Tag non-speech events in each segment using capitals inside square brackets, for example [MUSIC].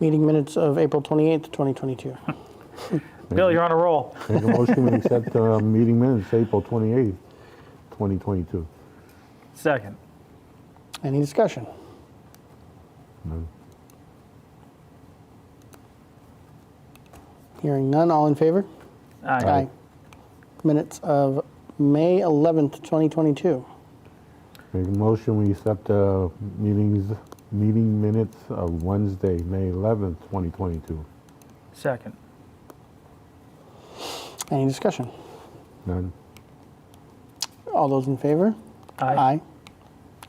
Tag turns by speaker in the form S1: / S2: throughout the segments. S1: meeting minutes of April 28th, 2022.
S2: Bill, you're on a roll.
S3: Make a motion, we accept uh, meeting minutes, April 28th, 2022.
S2: Second.
S1: Any discussion? Hearing none, all in favor?
S2: Aye.
S1: Minutes of May 11th, 2022.
S3: Make a motion, we accept uh, meetings, meeting minutes of Wednesday, May 11th, 2022.
S2: Second.
S1: Any discussion?
S3: None?
S1: All those in favor?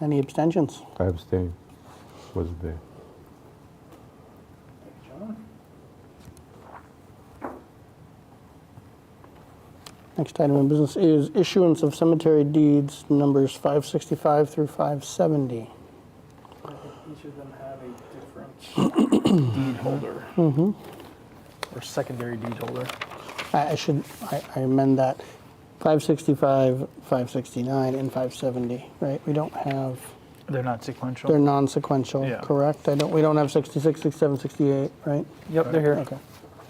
S1: Any abstentions?
S3: I abstain. Wasn't there.
S1: Next item of business is issuance of cemetery deeds numbers 565 through 570.
S4: Each of them have a different
S1: [CLEARS THROAT]
S4: deed holder.
S1: Mm-hmm.
S4: Or secondary deed holder.
S1: I I should, I I amend that, 565, 569, and 570, right? We don't have,
S2: They're not sequential.
S1: they're non-sequential,
S2: Yeah.
S1: correct? I don't, we don't have 66, 67, 68, right?
S4: Yep, they're here.
S1: Okay.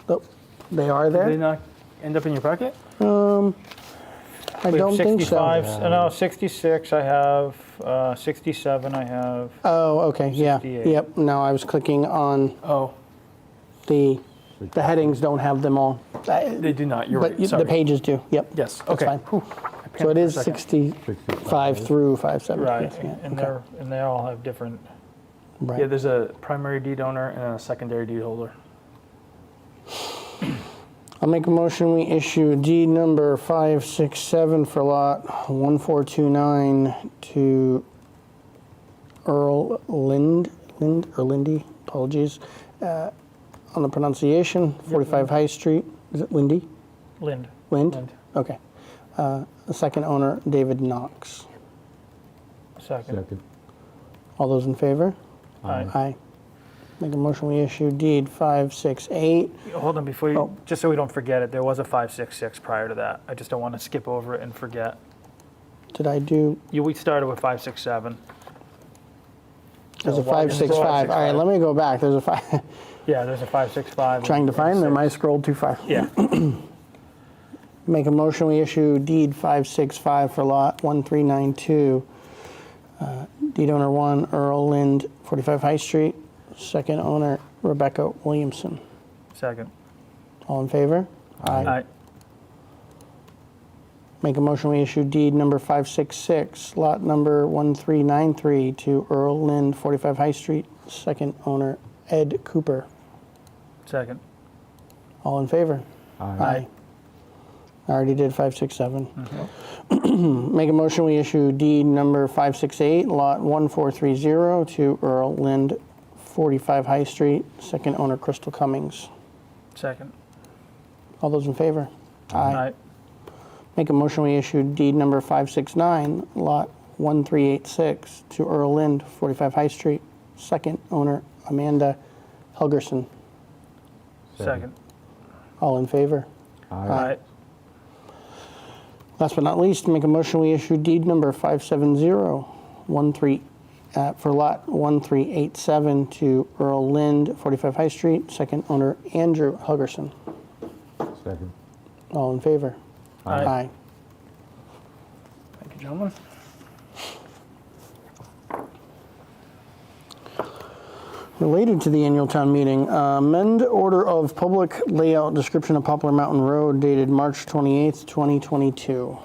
S1: Nope. They are
S4: Did they
S1: there?
S4: not end up in your packet?
S1: I don't think so.
S2: 65, uh, no, 66 I have, uh, 67 I have.
S1: Oh, okay, yeah.
S2: 68.
S1: Yep, no, I was clicking on
S4: Oh,
S1: the, the headings don't have them all. I-
S4: they do not, you're
S1: But you-
S4: right,
S1: the
S4: sorry.
S1: pages do, yep.
S4: Yes,
S1: That's
S4: okay.
S1: fine.
S4: panicked
S1: So it is
S4: for a second.
S1: 65 through 570.
S2: Right,
S1: yes, yeah,
S2: and
S1: okay,
S2: they're, and they all have different,
S4: Yeah,
S1: Right.
S4: there's a primary deed owner and a secondary deed holder.
S1: I'll make a motion, we issue deed number 567 for lot 1429 to Earl Lind, Lind, or Lindy, apologies, uh, on the pronunciation, 45 High Street, is it Lindy?
S2: Lind,
S1: Lind?
S4: Lind.
S1: Okay. Uh, The second owner, David Knox.
S2: second.
S3: Second.
S1: All those in favor?
S2: Aye.
S1: Aye. Make a motion, we issue deed 568.
S2: Hold on, before you,
S1: Oh.
S2: just so we don't forget it, there was a 566 prior to that. I just don't want to skip over it and forget.
S1: Did I do,
S2: You, we started with 567.
S1: there's a
S2: No, why-
S1: 565. All right,
S2: 565.
S1: let me go back. There's a five,
S2: Yeah, there's a 565.
S1: trying to
S2: and
S1: find them. I
S2: six.
S1: scrolled too far.
S2: Yeah,
S1: Make a motion, we issue deed 565 for lot 1392. Uh, Deed owner one, Earl Lind, 45 High Street. Second owner, Rebecca Williamson.
S2: second.
S1: All in favor?
S2: Aye,
S1: Make a motion, we issue deed number 566, lot number 1393 to Earl Lind, 45 High Street, second owner, Ed Cooper.
S2: second.
S1: All in favor?
S3: Aye.
S1: I already did 567. [CLEARS THROAT] Make a motion, we issue deed number 568, lot 1430 to Earl Lind, 45 High Street, second owner, Crystal Cummings.
S2: Second.
S1: All those in favor?
S2: Aye.
S1: Make a motion, we issue deed number 569, lot 1386, to Earl Lind, 45 High Street, second owner Amanda Helgerson.
S2: Second.
S1: All in favor?
S2: Aye.
S1: Last but not least, make a motion, we issue deed number 57013, uh, for lot 1387, to Earl Lind, 45 High Street, second owner Andrew Helgerson.
S3: Second.
S1: All in favor?
S2: Aye.
S4: Thank you, gentlemen.
S1: Related to the annual town meeting, uh, amend order of public layout description of Poplar Mountain Road dated March 28th, 2022.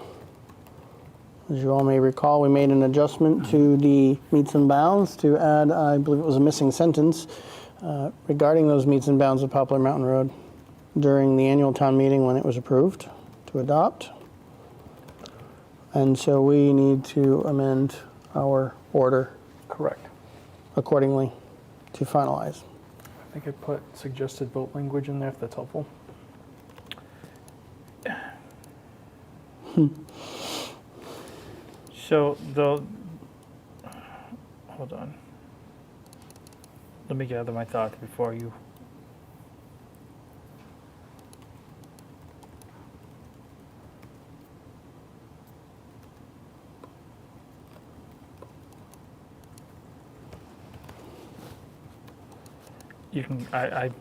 S1: As you all may recall, we made an adjustment to the meets and bounds to add, I believe it was a missing sentence uh, regarding those meets and bounds of Poplar Mountain Road during the annual town meeting when it was approved to adopt. And so we need to amend our order
S4: Correct.
S1: accordingly to finalize.
S4: I think I put suggested vote language in there if that's helpful.
S2: [LAUGHS] So the, hold on. Let me gather my thoughts before you. you can, I, I